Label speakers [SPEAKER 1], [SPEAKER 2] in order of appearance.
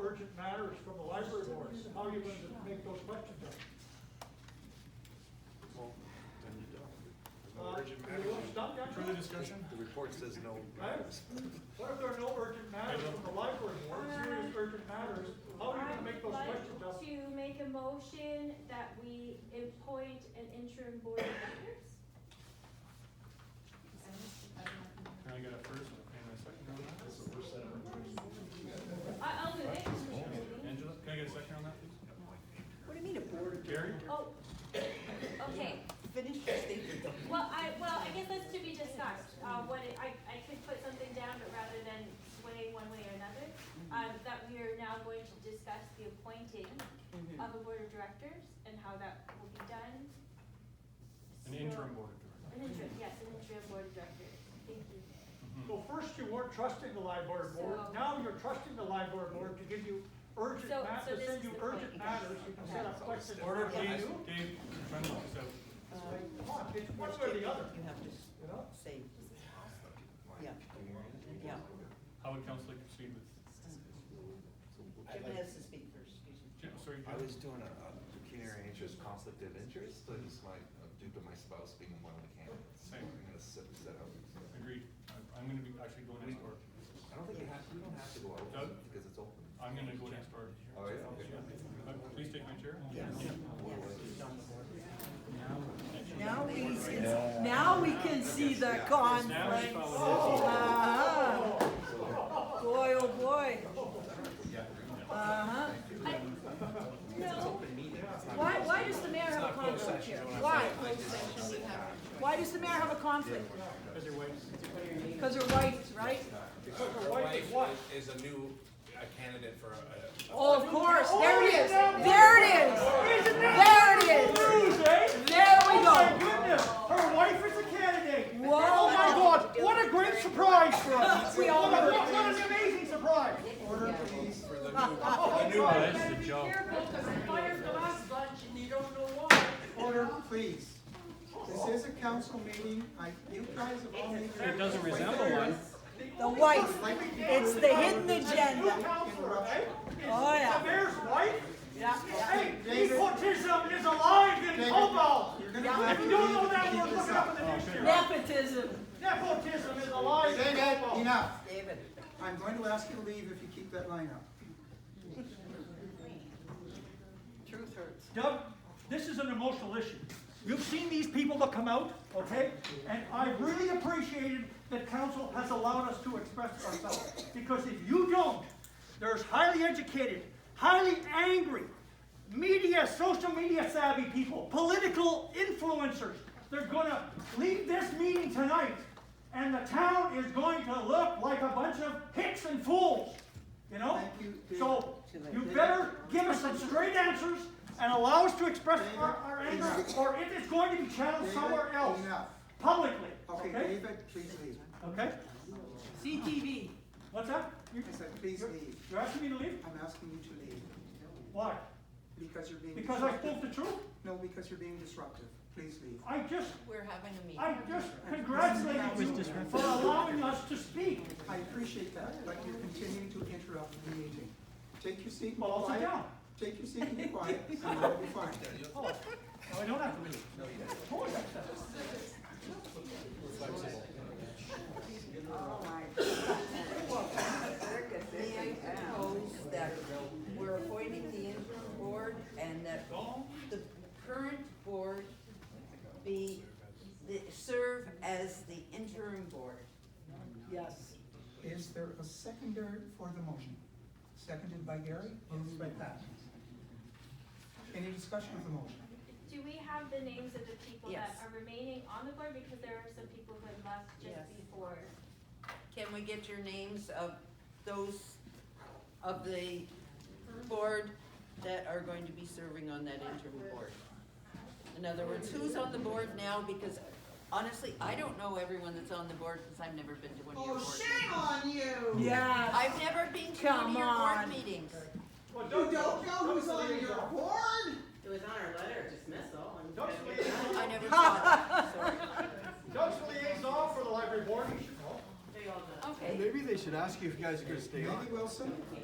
[SPEAKER 1] letters from the library board, how are you going to make those questions up?
[SPEAKER 2] Well, then you don't. There's
[SPEAKER 1] Uh,
[SPEAKER 2] no urgent
[SPEAKER 1] you want to
[SPEAKER 2] matters.
[SPEAKER 1] stop that?
[SPEAKER 3] Further discussion?
[SPEAKER 2] The report says no
[SPEAKER 1] Right?
[SPEAKER 2] matters.
[SPEAKER 1] What if there are no urgent matters from the library board, serious urgent matters, how are you gonna make those questions
[SPEAKER 4] I
[SPEAKER 1] up?
[SPEAKER 4] would like to make a motion that we appoint an interim board of directors.
[SPEAKER 3] Can I get a first and a second on that?
[SPEAKER 4] I, I'll do it, Commissioner Sweeney.
[SPEAKER 3] Angela, can I get a second on that, please?
[SPEAKER 5] What do you mean a board of
[SPEAKER 3] Gary?
[SPEAKER 4] Oh, okay,
[SPEAKER 5] Finish your statement.
[SPEAKER 4] well, I, well, I guess that's to be discussed, uh, what, it- I, I could put something down, but rather than sway one way or another, um, that we are now going to discuss the appointing of a board of directors and how that will be done.
[SPEAKER 3] An interim board of directors.
[SPEAKER 4] An interim, yes, an interim board of directors, thank you.
[SPEAKER 1] So first you weren't trusting the library board,
[SPEAKER 4] So-
[SPEAKER 1] now you're trusting the library board to give you urgent
[SPEAKER 4] So-
[SPEAKER 1] matters,
[SPEAKER 4] so
[SPEAKER 1] to
[SPEAKER 4] this
[SPEAKER 1] send
[SPEAKER 4] is
[SPEAKER 1] you
[SPEAKER 4] the
[SPEAKER 1] urgent
[SPEAKER 4] point.
[SPEAKER 1] matters, you can set up questions.
[SPEAKER 3] Order,
[SPEAKER 1] Can
[SPEAKER 3] please.
[SPEAKER 1] you?
[SPEAKER 3] Dave, trying to fix up.
[SPEAKER 5] Um,
[SPEAKER 1] Come on, it's one way or the other,
[SPEAKER 5] You have to
[SPEAKER 1] you know?
[SPEAKER 5] say, yeah, yeah.
[SPEAKER 3] How would council like to proceed with,
[SPEAKER 5] Jim has to speak first, excuse me.
[SPEAKER 3] Jim, sorry,
[SPEAKER 2] I was
[SPEAKER 3] Jim?
[SPEAKER 2] doing a a pecuniary interest conflict of interest, but it's my, uh, due to my spouse being one of the candidates.
[SPEAKER 3] Same.
[SPEAKER 2] I'm gonna set, set out.
[SPEAKER 3] agreed, I- I'm gonna be, actually go next door.
[SPEAKER 2] I don't think you have, you don't have to go out,
[SPEAKER 3] Doug?
[SPEAKER 2] because it's open.
[SPEAKER 3] I'm gonna go next door.
[SPEAKER 2] Oh, yeah, okay.
[SPEAKER 3] But Please take my chair.
[SPEAKER 5] Yes, Um, yes, he's on the board. Now we can, now we can see the conflict. Uh-huh. Boy, oh boy. Uh-huh.
[SPEAKER 4] No,
[SPEAKER 5] Why, why does the mayor have a conflict here? Why? Why does the mayor have a conflict? Because they're white. Because they're white, right?
[SPEAKER 6] Her wife is- is a new uh, candidate for a- a.
[SPEAKER 5] Oh, of course, there it is, there it is, there it is.
[SPEAKER 1] News, eh?
[SPEAKER 5] There we
[SPEAKER 1] Oh my
[SPEAKER 5] go.
[SPEAKER 1] goodness, her wife is a candidate.
[SPEAKER 5] Whoa.
[SPEAKER 1] Oh my God, what a great surprise for us.
[SPEAKER 5] We all
[SPEAKER 1] What a-
[SPEAKER 5] heard
[SPEAKER 1] What what an amazing surprise. Order, please.
[SPEAKER 6] For the new, for the new
[SPEAKER 3] Oh,
[SPEAKER 6] one.
[SPEAKER 3] that's the joke.
[SPEAKER 7] Order, please. This is a council meeting. I, you guys have all made your.
[SPEAKER 3] It doesn't resemble one.
[SPEAKER 5] The wife, it's the hidden
[SPEAKER 1] New
[SPEAKER 5] agenda.
[SPEAKER 1] counselor, eh?
[SPEAKER 5] Oh,
[SPEAKER 1] The
[SPEAKER 5] yeah.
[SPEAKER 1] mayor's wife?
[SPEAKER 5] Yeah.
[SPEAKER 1] Hey, nepotism is alive in
[SPEAKER 7] David,
[SPEAKER 1] Hopewell.
[SPEAKER 7] You're gonna have
[SPEAKER 1] If
[SPEAKER 7] to
[SPEAKER 1] you don't know
[SPEAKER 7] leave
[SPEAKER 1] that
[SPEAKER 7] to
[SPEAKER 1] word,
[SPEAKER 7] keep
[SPEAKER 1] look
[SPEAKER 7] this
[SPEAKER 1] it up
[SPEAKER 7] up.
[SPEAKER 1] in the dictionary.
[SPEAKER 5] Nepotism.
[SPEAKER 1] Nepotism is alive in
[SPEAKER 7] David,
[SPEAKER 1] Hopewell.
[SPEAKER 7] enough.
[SPEAKER 5] David.
[SPEAKER 7] I'm going to ask you to leave if you keep that line up.
[SPEAKER 5] Truth hurts.
[SPEAKER 1] Doug, this is an emotional issue. You've seen these people that come out, okay? And I really appreciated that council has allowed us to express ourselves. Because if you don't, there's highly educated, highly angry, media, social media savvy people, political influencers. They're gonna leave this meeting tonight and the town is going to look like a bunch of hicks and fools, you know?
[SPEAKER 7] Thank you, David.
[SPEAKER 1] So, you better give us some straight answers and allow us to express our, our anger, or it is going to be channeled
[SPEAKER 7] David,
[SPEAKER 1] somewhere else,
[SPEAKER 7] Enough.
[SPEAKER 1] publicly,
[SPEAKER 7] Okay,
[SPEAKER 1] okay?
[SPEAKER 7] David, please leave.
[SPEAKER 1] Okay,
[SPEAKER 5] CTV.
[SPEAKER 1] what's that? You-
[SPEAKER 7] I said, please leave.
[SPEAKER 1] You're asking me to leave?
[SPEAKER 7] I'm asking you to leave
[SPEAKER 1] Why?
[SPEAKER 7] because you're being
[SPEAKER 1] Because I
[SPEAKER 7] disruptive.
[SPEAKER 1] spoke the truth?
[SPEAKER 7] No, because you're being disruptive. Please leave.
[SPEAKER 1] I just,
[SPEAKER 5] We're having a meeting.
[SPEAKER 1] I just congratulated you for allowing us to speak.
[SPEAKER 7] I appreciate that, but you're continuing to interrupt the meeting. Take your seat and be
[SPEAKER 1] Well, I'll sit
[SPEAKER 7] quiet.
[SPEAKER 1] down.
[SPEAKER 7] Take your seat and be quiet, and I'll be fine.
[SPEAKER 1] Oh, no, I don't have to leave. Of course I said.
[SPEAKER 5] May I propose that we're appointing the interim board and that the current board be, the- serve as the interim board? Yes.
[SPEAKER 7] Is there a seconder for the motion? Seconded by Gary, moved by Pat. Any discussion of the motion?
[SPEAKER 4] do we have the names of the people that
[SPEAKER 8] Yes.
[SPEAKER 4] are remaining on the board, because there are some people who had left just
[SPEAKER 8] Yes.
[SPEAKER 4] before?
[SPEAKER 8] Can we get your names of those of the board that are going to be serving on that interim board? In other words, who's on the board now? Because honestly, I don't know everyone that's on the board because I've never been to one of your board. meetings.
[SPEAKER 7] on you!
[SPEAKER 5] Yeah.
[SPEAKER 8] I've never been to one
[SPEAKER 5] Come
[SPEAKER 8] of your board
[SPEAKER 5] on.
[SPEAKER 8] meetings.
[SPEAKER 1] Well,
[SPEAKER 7] You don't know who's on your board?
[SPEAKER 9] It was on our letter of dismissal and.
[SPEAKER 1] Doug's liaison,
[SPEAKER 8] I never saw it, sorry.
[SPEAKER 1] Doug's liaison for the library board, you should know.
[SPEAKER 9] They all know.
[SPEAKER 8] Okay.
[SPEAKER 7] Maybe Wilson?